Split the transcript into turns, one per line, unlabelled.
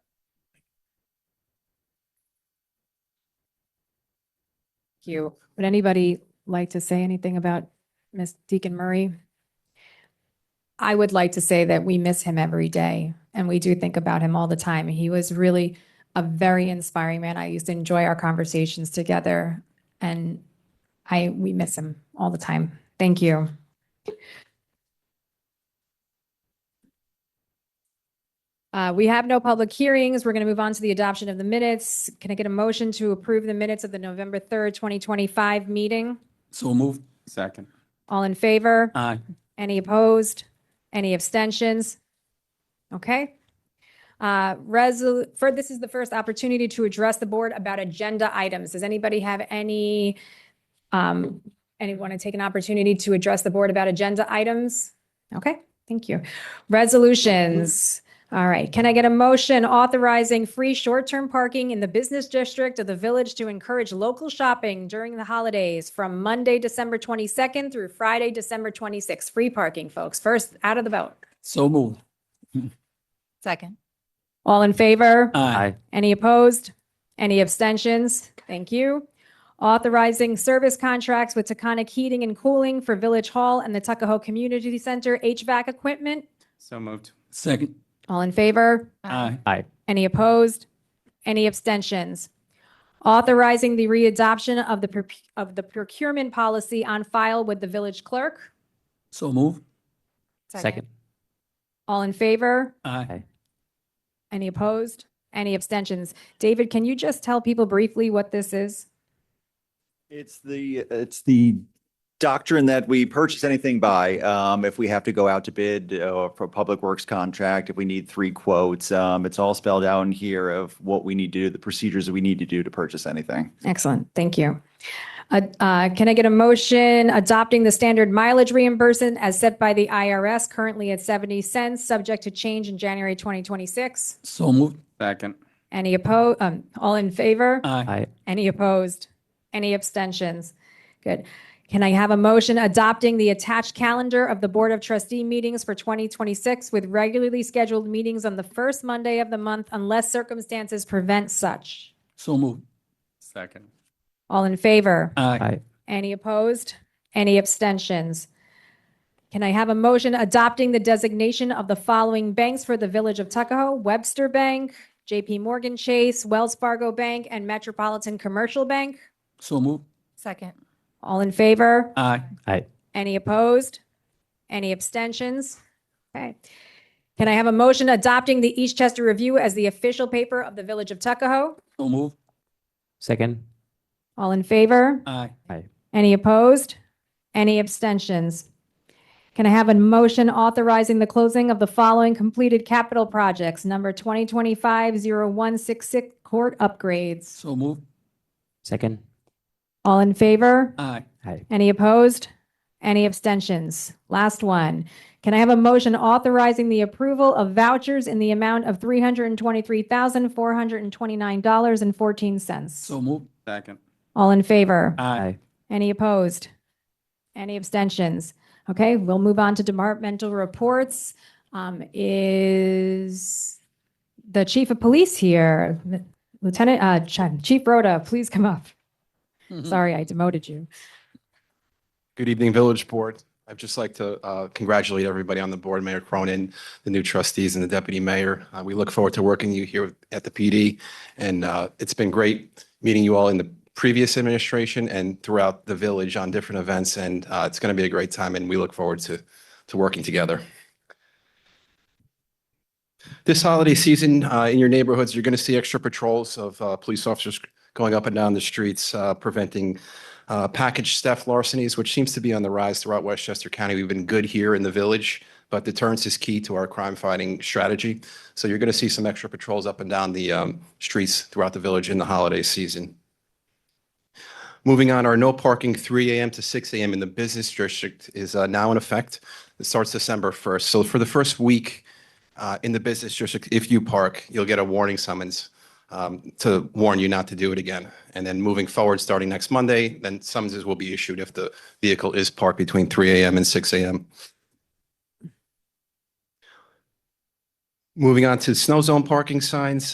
you. Would anybody like to say anything about Miss Deacon Murray? I would like to say that we miss him every day and we do think about him all the time. He was really a very inspiring man. I used to enjoy our conversations together and I, we miss him all the time. Thank you. Uh, we have no public hearings. We're going to move on to the adoption of the minutes. Can I get a motion to approve the minutes of the November 3rd, 2025 meeting?
So moved. Second.
All in favor?
Aye.
Any opposed? Any abstentions? Okay. Uh, resol, for, this is the first opportunity to address the board about agenda items. Does anybody have any, um, anyone to take an opportunity to address the board about agenda items? Okay, thank you. Resolutions. All right. Can I get a motion authorizing free short-term parking in the business district of the village to encourage local shopping during the holidays from Monday, December 22nd through Friday, December 26th? Free parking, folks. First out of the vote.
So moved.
Second.
All in favor?
Aye.
Any opposed? Any abstentions? Thank you. Authorizing service contracts with Taconic Heating and Cooling for Village Hall and the Tuckahoe Community Center HVAC equipment.
So moved.
Second.
All in favor?
Aye.
Any opposed? Any abstentions? Authorizing the readoption of the, proc- of the procurement policy on file with the village clerk.
So moved.
Second.
All in favor?
Aye.
Any opposed? Any abstentions? David, can you just tell people briefly what this is?
It's the, it's the doctrine that we purchase anything by. Um, if we have to go out to bid, uh, for a public works contract, if we need three quotes, um, it's all spelled out in here of what we need to do, the procedures that we need to do to purchase anything.
Excellent, thank you. Uh, uh, Can I get a motion adopting the standard mileage reimbursement as set by the IRS currently at 70 cents, subject to change in January 2026?
So moved.
Second.
Any opposed? All in favor?
Aye.
Any opposed? Any abstentions? Good. Can I have a motion adopting the attached calendar of the Board of Trustee meetings for 2026 with regularly scheduled meetings on the first Monday of the month unless circumstances prevent such?
So moved.
Second.
All in favor?
Aye.
Any opposed? Any abstentions? Can I have a motion adopting the designation of the following banks for the Village of Tuckahoe? Webster Bank, JP Morgan Chase, Wells Fargo Bank, and Metropolitan Commercial Bank?
So moved.
Second.
All in favor?
Aye.
Any opposed? Any abstentions? Okay. Can I have a motion adopting the Eastchester Review as the official paper of the Village of Tuckahoe?
So moved.
Second,
All in favor?
Aye.
Any opposed? Any abstentions? Can I have a motion authorizing the closing of the following completed capital projects? Number 2025-0166 court upgrades.
So moved.
second,
All in favor?
Aye.
Any opposed? Any abstentions? Last one. Can I have a motion authorizing the approval of vouchers in the amount of $323,429.14?
So moved.
Second.
All in favor?
Aye.
Any opposed? Any abstentions? Okay, we'll move on to departmental reports. Um, Is the chief of police here? Lieutenant, uh, Ch- Chief Rhoda, please come up.
Hmm.
Sorry, I demoted you.
Good evening, Village Board. I'd just like to uh, congratulate everybody on the board, Mayor Cronin, the new trustees and the deputy mayor. Uh, We look forward to working you here at the PD. And uh, it's been great meeting you all in the previous administration and throughout the village on different events. And uh, it's going to be a great time and we look forward to, to working together. This holiday season, uh, in your neighborhoods, you're going to see extra patrols of uh, police officers going up and down the streets, uh, preventing uh, package theft larcenies, which seems to be on the rise throughout Westchester County. We've been good here in the village, but deterrence is key to our crime fighting strategy. So you're going to see some extra patrols up and down the um, streets throughout the village in the holiday season. Moving on, our no parking 3 AM to 6 AM in the business district is uh, now in effect. It starts December 1st. So for the first week uh, in the business district, if you park, you'll get a warning summons um, to warn you not to do it again. And then moving forward, starting next Monday, then summonses will be issued if the vehicle is parked between 3 AM and 6 AM. Moving on to snow zone parking signs,